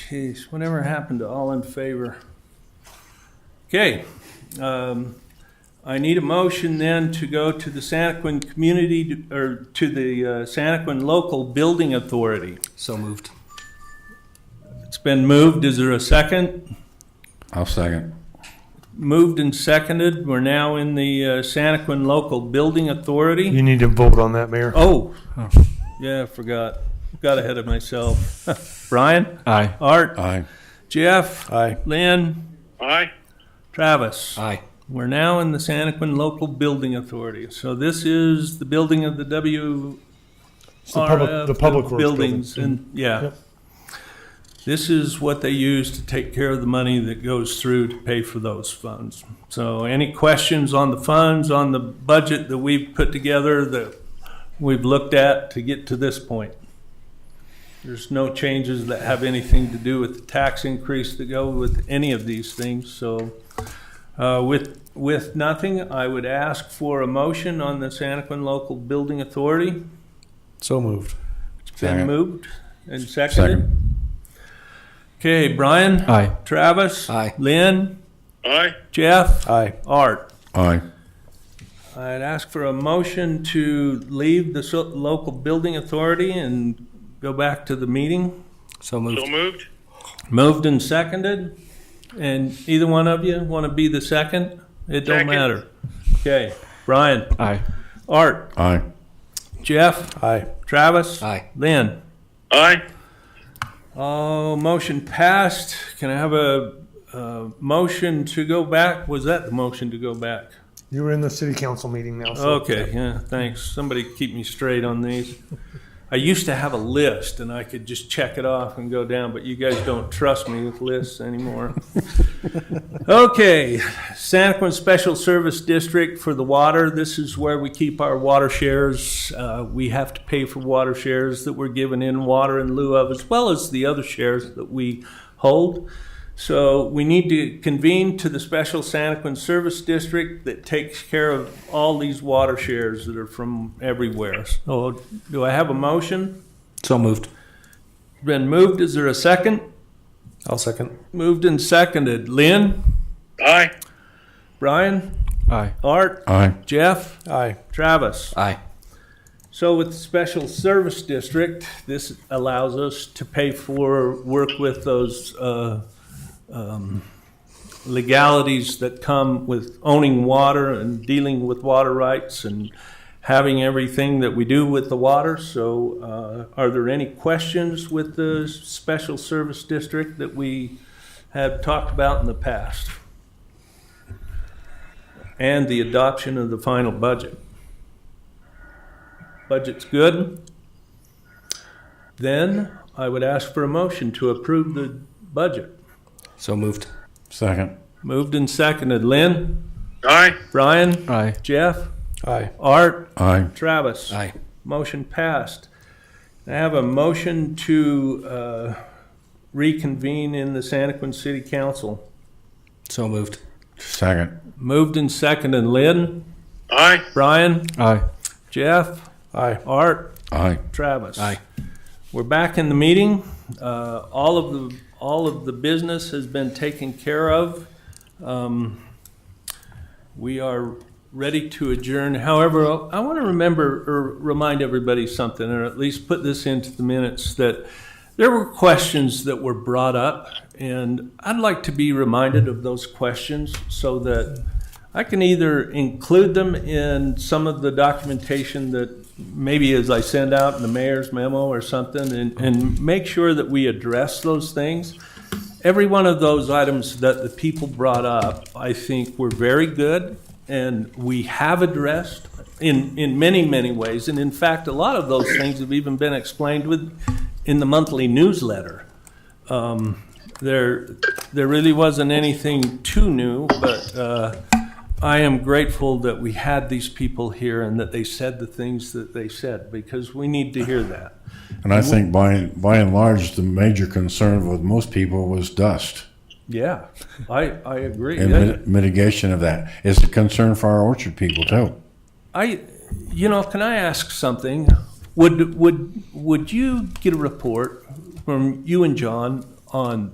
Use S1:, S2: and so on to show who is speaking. S1: Jeez, whatever happened to all in favor? Okay, um, I need a motion then to go to the Santaquin Community, or to the uh, Santaquin Local Building Authority.
S2: So moved.
S1: It's been moved, is there a second?
S3: I'll second.
S1: Moved and seconded, we're now in the uh, Santaquin Local Building Authority.
S4: You need to vote on that, Mayor.
S1: Oh, yeah, I forgot, got ahead of myself. Brian?
S2: Aye.
S1: Art?
S3: Aye.
S1: Jeff?
S4: Aye.
S1: Lynn?
S5: Aye.
S1: Travis?
S2: Aye.
S1: We're now in the Santaquin Local Building Authority. So this is the building of the WRF.
S4: It's the public, the public works
S1: uh, Buildings,
S4: building.
S1: and, yeah.
S4: Yep.
S1: This is what they use to take care of the money that goes through to pay for those funds. So any questions on the funds, on the budget that we've put together, that we've looked at to get to this point? There's no changes that have anything to do with the tax increase that go with any of these things, so. Uh, With, with nothing, I would ask for a motion on the Santaquin Local Building Authority.
S2: So moved.
S1: It's been
S3: Second.
S1: moved and seconded. Okay, Brian,
S2: Aye.
S1: Travis.
S2: Aye.
S1: Lynn,
S5: Aye.
S1: Jeff,
S4: Aye.
S1: Art.
S3: Aye.
S1: I'd ask for a motion to leave the so- local building authority and go back to the meeting.
S2: So
S5: So
S2: moved.
S5: moved.
S1: Moved and seconded. And either one of you want to be the second? It don't
S5: Second.
S1: matter. Okay, Brian,
S2: Aye.
S1: Art,
S3: Aye.
S1: Jeff,
S4: Aye.
S1: Travis.
S2: Aye.
S1: Lynn.
S5: Aye.
S1: Oh, motion passed. Can I have a, uh motion to go back? Was that the motion to go back?
S4: You were in the city council meeting now,
S1: Oh.
S4: so.
S1: Okay, yeah, thanks. Somebody keep me straight on these. I used to have a list and I could just check it off and go down, but you guys don't trust me with lists anymore. Okay, Santaquin Special Service District for the water. This is where we keep our water shares. Uh, we have to pay for water shares that we're given in water in lieu of, as well as the other shares that we hold. So we need to convene to the special Santaquin Service District that takes care of all these water shares that are from everywhere. So do I have a motion?
S2: So moved.
S1: Been moved, is there a second?
S2: I'll second.
S1: Moved and seconded. Lynn,
S5: Aye.
S1: Brian,
S2: Aye.
S1: Art,
S3: Aye.
S1: Jeff,
S4: Aye.
S1: Travis.
S2: Aye.
S1: So with the Special Service District, this allows us to pay for, work with those uh, um, legalities that come with owning water and dealing with water rights and having everything that we do with the water. So uh, are there any questions with the Special Service District that we have talked about in the past? And the adoption of the final budget? Budget's good. Then I would ask for a motion to approve the budget.
S2: So moved.
S3: Second.
S1: Moved and seconded. Lynn,
S5: Aye.
S1: Brian,
S2: Aye.
S1: Jeff,
S4: Aye.
S1: Art,
S3: Aye.
S1: Travis.
S2: Aye.
S1: Motion passed. I have a motion to uh, reconvene in the Santaquin City Council.
S2: So moved.
S3: Second.
S1: Moved and seconded. Lynn,
S5: Aye.
S1: Brian,
S2: Aye.
S1: Jeff,
S4: Aye.
S1: Art,
S3: Aye.
S1: Travis.
S2: Aye.
S1: We're back in the meeting. Uh, All of the, all of the business has been taken care of. Um, We are ready to adjourn. However, I want to remember or remind everybody something, or at least put this into the minutes, that there were questions that were brought up, and I'd like to be reminded of those questions so that I can either include them in some of the documentation that maybe as I send out in the mayor's memo or something, and, and make sure that we address those things. Every one of those items that the people brought up, I think were very good, and we have addressed in, in many, many ways. And in fact, a lot of those things have even been explained with, in the monthly newsletter. Um, There, there really wasn't anything too new, but, uh, I am grateful that we had these people here and that they said the things that they said, because we need to hear that.
S3: And I think by, by and large, the major concern with most people was dust
S1: Yeah, I, I agree.
S3: and
S1: Yeah.
S3: mit- mitigation of that. It's a concern for our orchard people too.
S1: I, you know, can I ask something? Would, would, would you get a report from you and John on